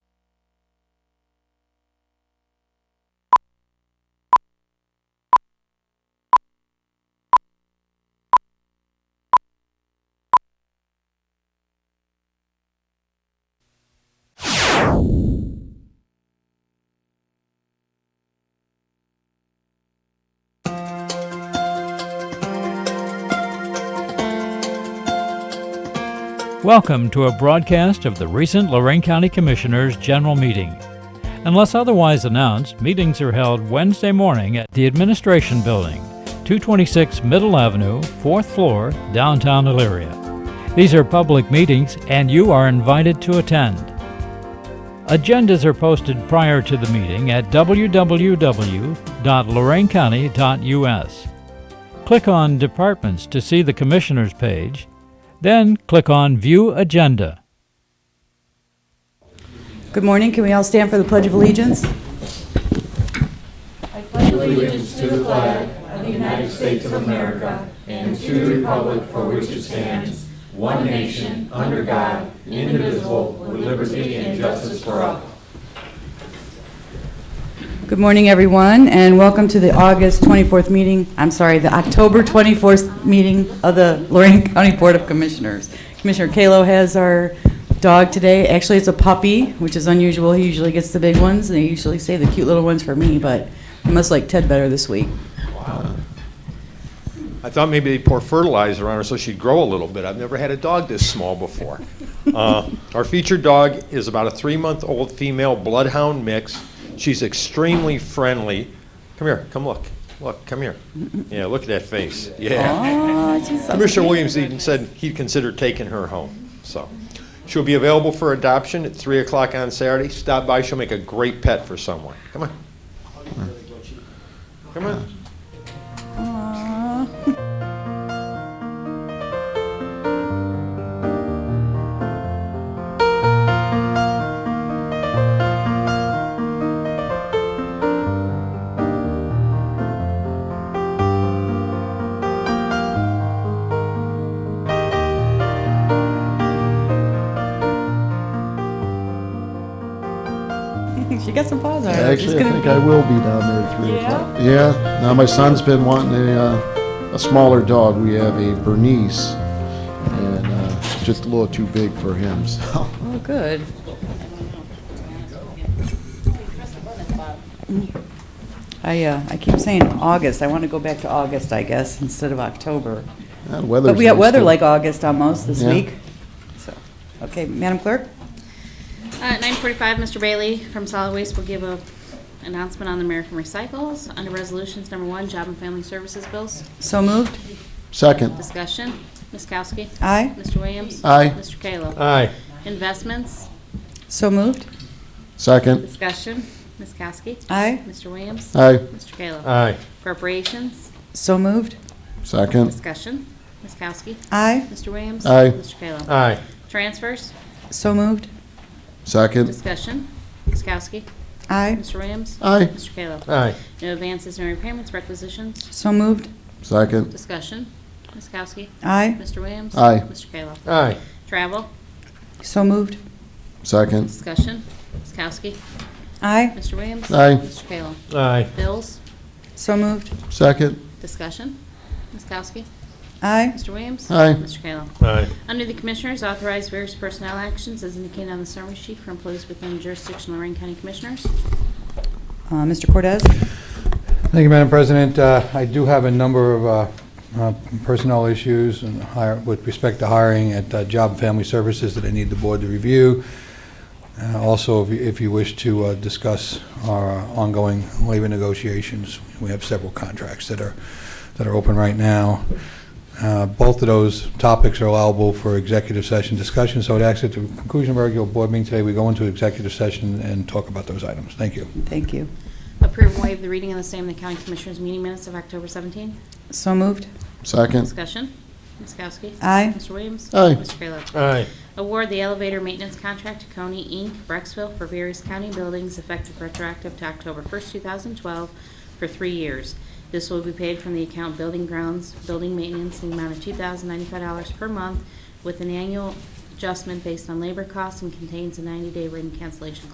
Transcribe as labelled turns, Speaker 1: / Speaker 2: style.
Speaker 1: Welcome to a broadcast of the recent Lorraine County Commissioners' General Meeting. Unless otherwise announced, meetings are held Wednesday morning at the Administration Building, 226 Middle Avenue, 4th floor, downtown Elyria. These are public meetings and you are invited to attend. Agendas are posted prior to the meeting at www.loraincounty.us. Click on Departments to see the Commissioners page, then click on View Agenda.
Speaker 2: Good morning. Can we all stand for the Pledge of Allegiance? Good morning, everyone, and welcome to the August 24th meeting, I'm sorry, the October 24th meeting of the Lorraine County Board of Commissioners. Commissioner Kalo has our dog today. Actually, it's a puppy, which is unusual. He usually gets the big ones, and they usually save the cute little ones for me, but I must like Ted better this week.
Speaker 3: I thought maybe they'd pour fertilizer on her so she'd grow a little bit. I've never had a dog this small before. Uh, Our featured dog is about a three-month-old female bloodhound mix. She's extremely friendly. Come here, come look, look, come here. Yeah, look at that face, yeah.
Speaker 2: Aw, she's so
Speaker 3: Commissioner Williams even said he'd consider taking her home, so. She'll be available for adoption at 3 o'clock on Saturday. Stop by, she'll make a great pet for someone. Come on. Come on.
Speaker 2: She got some paws on her. She's
Speaker 4: Actually, I
Speaker 2: gonna-
Speaker 4: think I will be down there at three o'clock. Yeah, now my son's been wanting a, uh, a smaller dog. We have a Bernese, and uh, it's just a little too big for him, so.
Speaker 2: Oh, good. I, uh, I keep saying August. I want to go back to August, I guess, instead of October.
Speaker 4: That weather's
Speaker 2: But we got
Speaker 4: nice,
Speaker 2: weather
Speaker 4: too.
Speaker 2: like August almost this
Speaker 4: Yeah.
Speaker 2: week. So, okay, Madam Clerk?
Speaker 5: Uh, At 9:45, Mr. Bailey from Solid Waste will give a announcement on the American Recycles. Under Resolutions Number One, Job and Family Services Bills.
Speaker 2: So moved.
Speaker 4: Second,
Speaker 5: Discussion. Ms. Kowski.
Speaker 2: Aye.
Speaker 5: Mr. Williams.
Speaker 4: Aye.
Speaker 5: Mr. Kayla.
Speaker 3: Aye.
Speaker 5: Investments.
Speaker 2: So moved.
Speaker 4: second,
Speaker 5: Discussion. Ms. Kowski.
Speaker 2: Aye.
Speaker 5: Mr. Williams.
Speaker 4: aye,
Speaker 5: Mr. Kayla.
Speaker 3: Aye.
Speaker 5: Appropriations.
Speaker 2: So moved.
Speaker 4: second,
Speaker 5: Discussion. Ms. Kowski.
Speaker 2: Aye.
Speaker 5: Mr. Williams.
Speaker 4: Aye.
Speaker 5: Mr. Kayla.
Speaker 3: Aye.
Speaker 5: Transfers.
Speaker 2: So moved.
Speaker 4: second,
Speaker 5: Discussion. Ms. Kowski.
Speaker 2: Aye.
Speaker 5: Mr. Williams.
Speaker 4: Aye.
Speaker 5: Mr. Kayla.
Speaker 3: Aye.
Speaker 5: No advances, no repayments, requisitions.
Speaker 2: So moved.
Speaker 4: second,
Speaker 5: Discussion. Ms. Kowski.
Speaker 2: Aye.
Speaker 5: Mr. Williams?
Speaker 4: Aye.
Speaker 5: Mr. Kayla?
Speaker 3: Aye.
Speaker 5: Travel?
Speaker 2: So moved.
Speaker 4: second,
Speaker 5: Discussion? Ms. Kowski?
Speaker 2: Aye.
Speaker 5: Mr. Williams?
Speaker 4: Aye.
Speaker 5: Mr. Kayla?
Speaker 3: Aye.
Speaker 5: Bills?
Speaker 2: So moved.
Speaker 4: second,
Speaker 5: Discussion? Ms. Kowski?
Speaker 2: Aye.
Speaker 5: Mr. Williams?
Speaker 4: Aye.
Speaker 5: Mr. Kayla?
Speaker 3: Aye.
Speaker 5: Under the Commissioners, authorize various personnel actions as indicated on the summary sheet for employees within the jurisdiction of Lorraine County Commissioners.
Speaker 2: Uh, Mr. Cortez?
Speaker 6: Thank you, Madam President. Uh, I do have a number of uh, uh, personnel issues and hire- with respect to hiring at uh, Job and Family Services that I need the board to review. Uh, Also, if you- if you wish to uh, discuss our uh, ongoing labor negotiations, we have several contracts that are, that are open right now. Uh, Both of those topics are allowable for executive session discussion, so I'd ask at the conclusion of our regular board meeting today, we go into executive session and talk about those items. Thank you.
Speaker 2: Thank you.
Speaker 5: Approve and waive the reading of the same in the County Commissioners meeting minutes of October 17th.
Speaker 2: So moved.
Speaker 4: second,
Speaker 5: Discussion? Ms. Kowski?
Speaker 2: Aye.
Speaker 5: Mr. Williams?
Speaker 4: Aye.
Speaker 5: Mr. Kayla?
Speaker 3: Aye.
Speaker 5: Award the elevator maintenance contract to Coney Inc., Brexville, for various county buildings effective retroactive to October 1st, 2012, for three years. This will be paid from the account Building Grounds, Building Maintenance, in the amount of $2,095 per month, with an annual adjustment based on labor costs and contains a 90-day written cancellation